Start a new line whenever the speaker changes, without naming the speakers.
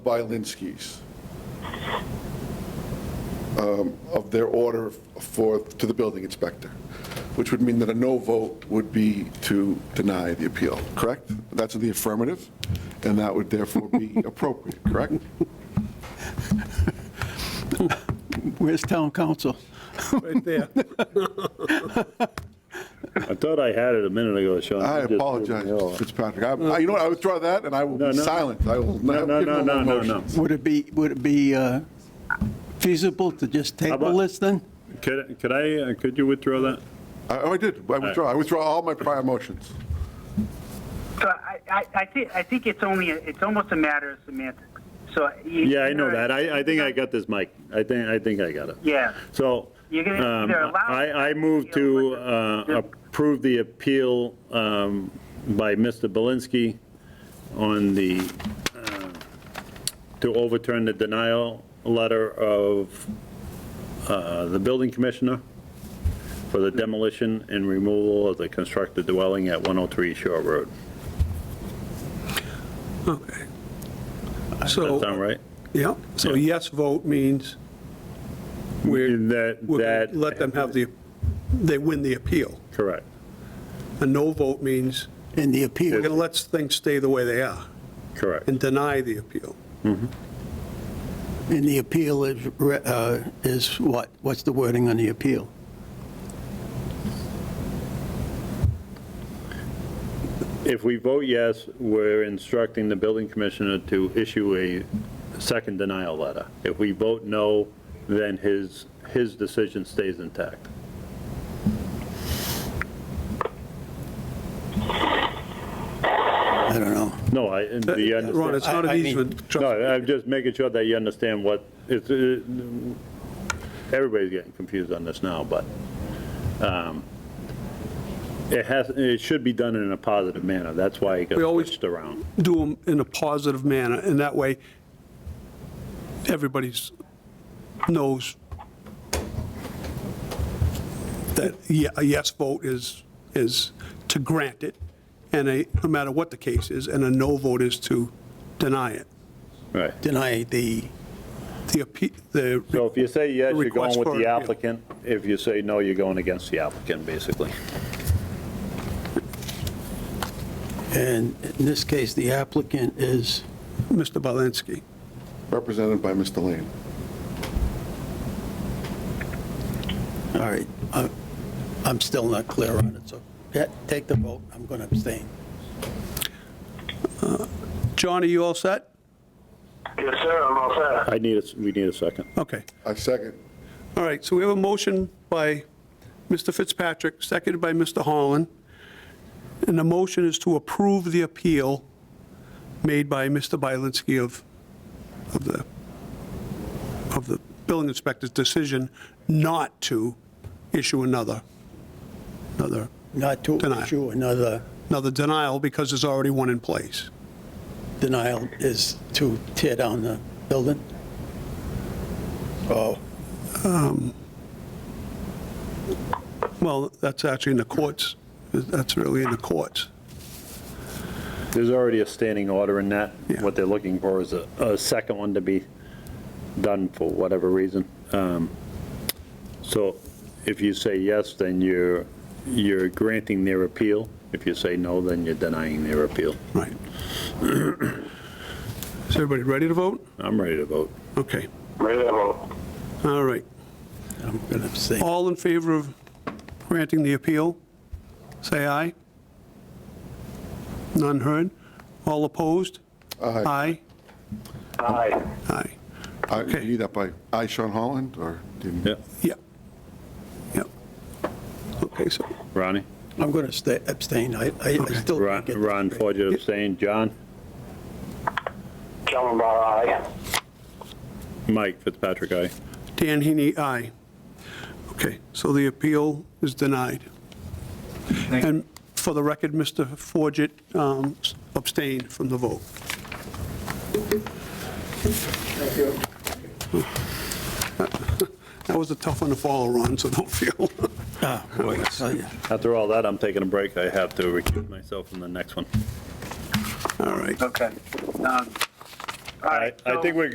Bylinskis um, of their order for, to the building inspector, which would mean that a no vote would be to deny the appeal, correct? That's in the affirmative, and that would therefore be appropriate, correct?
Where's town council?
Right there.
I thought I had it a minute ago, Sean.
I
You just
apologize,
threw
Mr.
me off.
Fitzpatrick. I- I- You know what, I withdraw that, and I will
No,
be
no.
silent. I will
No,
not
no,
give no
no, no,
more
no, no.
motions.
Would it be, would it be uh, feasible to just table
about-
this then?
Could, could I, uh, could you withdraw that?
I- Oh, I did, I withdraw, I withdraw all my prior motions.
So I, I, I think, I think it's only, it's almost a matter of semantics. So. you-
Yeah, I
you're
know
gonna-
that. I, I think I got this, Mike. I think, I think I got it.
Yeah.
So,
You're gonna
um,
either allow
I, I move
the appeal
to
or
uh,
the-
approve the appeal um, by Mr. Belinsky on the, uh, to overturn the denial letter of uh, the building commissioner for the demolition and removal of the constructed dwelling at 103 Shore Road.
Okay.
Does that
So,
sound right?
yeah, so
Yeah.
yes vote means we're,
That,
we're gonna
that.
let them have the, they win the appeal.
Correct.
A no vote means
In the
we're going to
appeal?
let things stay the way they are
Correct.
and deny the appeal.
And the appeal is, re- uh, is what? What's the wording on the appeal?
If we vote yes, we're instructing the building commissioner to issue a second denial letter. If we vote no, then his, his decision stays intact.
I don't know.
No, I, and do you
Uh, Ron, it's
I-
not
understand?
an
I mean-
easement. trust me.
No, I'm just making sure that you understand what, it's, uh, everybody's getting confused on this now, but um, it has, it should be done in a positive manner. That's why it
We
got
always-
switched around.
do them in a positive manner, and that way, everybody's knows that ye- a yes vote is, is to grant it, and a, no matter what the case is, and a no vote is to deny it.
Right.
Deny the,
The, appe- the
So if you say yes, you're
Request
going with
for
the
appeal.
applicant. If you say no, you're going against the applicant, basically.
and in this case, the applicant is,
Mr. Balanski,
Represented by Mr. Lane.
all right, I- I'm still not clear on it, so yeah, take the vote, I'm going to abstain.
John, are you all set?
Yes, sir, I'm all set.
I need a, we need a second.
Okay.
I second.
All right, so we have a motion by Mr. Fitzpatrick, seconded by Mr. Holland, and the motion is to approve the appeal made by Mr. Bylinski of, of the, of the building inspector's decision not to issue another, another,
Not to
Deny.
issue another
another denial because there's already one in place.
denial is to tear down the building? Oh,
Well, that's actually in the courts, that's really in the courts.
There's already a standing order in that.
Yeah.
What they're looking for is a, a second one to be done for whatever reason. Um, So if you say yes, then you're, you're granting their appeal. If you say no, then you're denying their appeal.
Right. Is everybody ready to vote?
I'm ready to vote.
Okay,
Ready to vote.
all right.
I'm going to abstain.
All in favor of granting the appeal, say aye. None heard. All opposed?
Aye.
Aye.
Aye.
Aye.
I- You
Okay.
need that by, I, Sean Holland, or? do you-
Yeah.
Yep. Yep. Okay, so,
Ronnie?
I'm going to stay, abstain, I, I I still
Ron,
can't get this
Ron
straight.
Forget abstained. John?
John Lamar, aye.
Mike Fitzpatrick, aye.
Dan Heaney, aye. Okay, so the appeal is denied. And for the record, Mr. Forget um, abstained from the vote. That was a tough one to follow, Ron, so don't feel.
Ah, boy, I tell ya.
After all that, I'm taking a break. I have to recuse myself from the next one.
All right.
Okay. Um, All right,
I
so-
think we're